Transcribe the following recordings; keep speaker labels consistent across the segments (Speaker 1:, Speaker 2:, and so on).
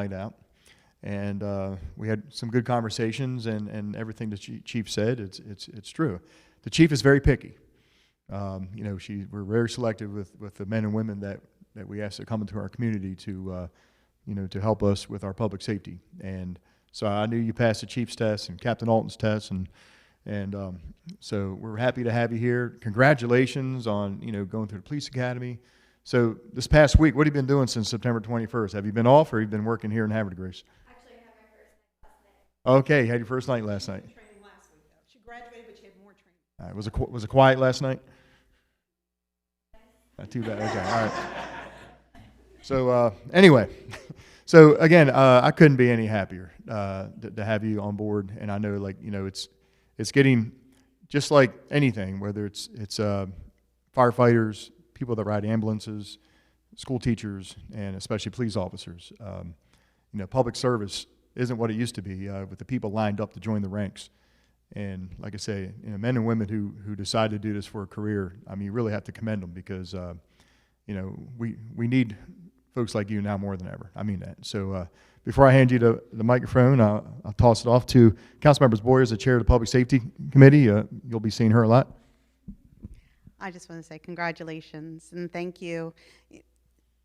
Speaker 1: like that. And uh, we had some good conversations, and, and everything the chi- chief said, it's, it's, it's true. The chief is very picky. Um, you know, she, we're very selective with, with the men and women that, that we ask to come into our community to, uh, you know, to help us with our public safety. And so I knew you passed the chief's test and Captain Alton's test, and and um, so we're happy to have you here. Congratulations on you know going through the police academy. So this past week, what have you been doing since September 21st? Have you been off, or have you been working here in Havertide Grace? Actually, I had my first night last night. Okay, you had your first night last night.
Speaker 2: training last week, though. She graduated, but she had more training.
Speaker 1: All right, was it qu- was it quiet last night? Not too bad. Okay, all right. So uh, anyway, so again, uh, I couldn't be any happier uh, to, to have you on board, and I know like you know it's it's getting just like anything, whether it's it's uh, firefighters, people that ride ambulances, school teachers, and especially police officers. Um, you know, public service isn't what it used to be uh, with the people lined up to join the ranks. And like I say, you know, men and women who who decide to do this for a career, I mean, you really have to commend them because uh, you know we we need folks like you now more than ever. I mean that. So uh, before I hand you the, the microphone, I'll, I'll toss it off to Councilmembers Boyers, the chair of the Public Safety Committee. Uh, you'll be seeing her a lot.
Speaker 3: I just want to say congratulations and thank you.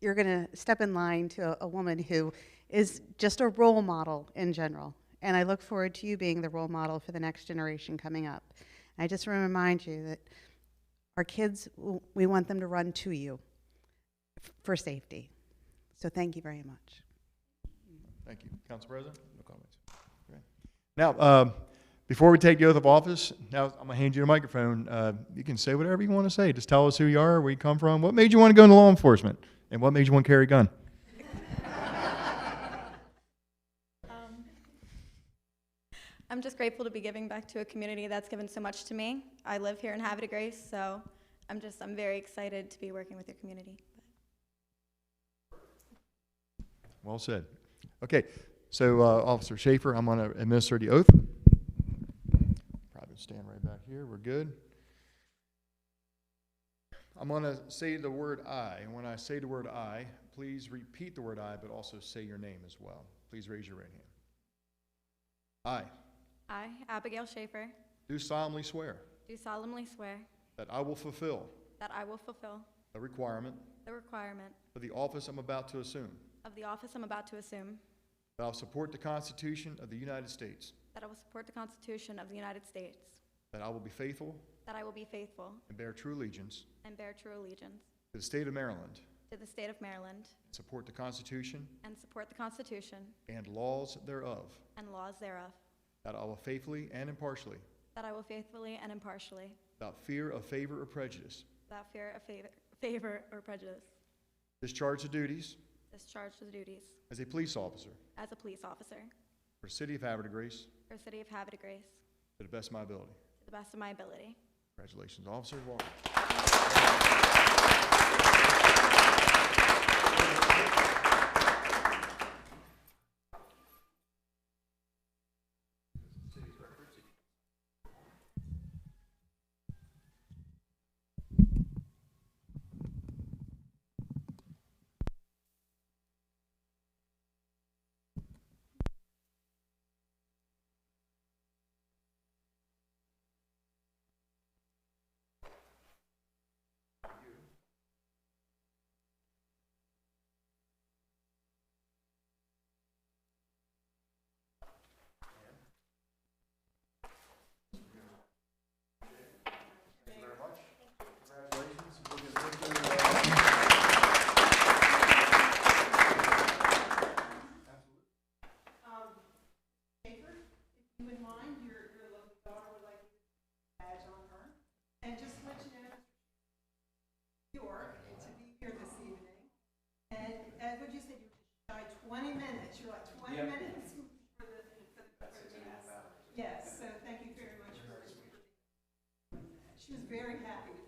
Speaker 3: You're going to step in line to a, a woman who is just a role model in general. And I look forward to you being the role model for the next generation coming up. And I just want to remind you that our kids, w- we want them to run to you f- for safety. So thank you very much.
Speaker 1: Thank you, Council President. No comments. Now, uh, before we take the oath of office, now I'm gonna hand you the microphone. Uh, you can say whatever you want to say. Just tell us who you are, where you come from, what made you want to go into law enforcement, and what made you want to carry a gun.
Speaker 4: Um, I'm just grateful to be giving back to a community that's given so much to me. I live here in Habitat Grace, so I'm just I'm very excited to be working with your community.
Speaker 1: Well said. Okay, so uh, Officer Schaefer, I'm going to administer the oath. Probably stand right back here. We're good. I'm going to say the word "I." And when I say the word "I," please repeat the word "I," but also say your name as well. Please raise your right hand. I
Speaker 4: I, Abigail Schaefer,
Speaker 1: do solemnly swear
Speaker 4: do solemnly swear
Speaker 1: that I will fulfill
Speaker 4: that I will fulfill
Speaker 1: the requirement
Speaker 4: the requirement
Speaker 1: of the office I'm about to assume.
Speaker 4: of the office I'm about to assume,
Speaker 1: That I'll support the Constitution of the United States.
Speaker 4: that I will support the Constitution of the United States,
Speaker 1: That I will be faithful
Speaker 4: that I will be faithful
Speaker 1: and bear true allegiance
Speaker 4: and bear true allegiance
Speaker 1: to the state of Maryland.
Speaker 4: to the state of Maryland
Speaker 1: Support the Constitution
Speaker 4: and support the Constitution
Speaker 1: and laws thereof.
Speaker 4: and laws thereof,
Speaker 1: That I will faithfully and impartially,
Speaker 4: that I will faithfully and impartially,
Speaker 1: without fear of favor or prejudice,
Speaker 4: without fear of favor, favor or prejudice,
Speaker 1: discharge the duties
Speaker 4: Discharge the duties
Speaker 1: as a police officer
Speaker 4: as a police officer
Speaker 1: for the City of Havertide Grace
Speaker 4: for City of Habitat Grace
Speaker 1: to the best of my ability.
Speaker 4: to the best of my ability.
Speaker 1: Congratulations, Officer. Welcome.
Speaker 2: Schaefer, if you would mind, your, your little daughter would like to badge on her. And just let you know, New York, to be here this evening. And, and what'd you say, you were shy twenty minutes, you're like twenty minutes for the, for the, for the test. Yes, so thank you very much. for- She was very happy to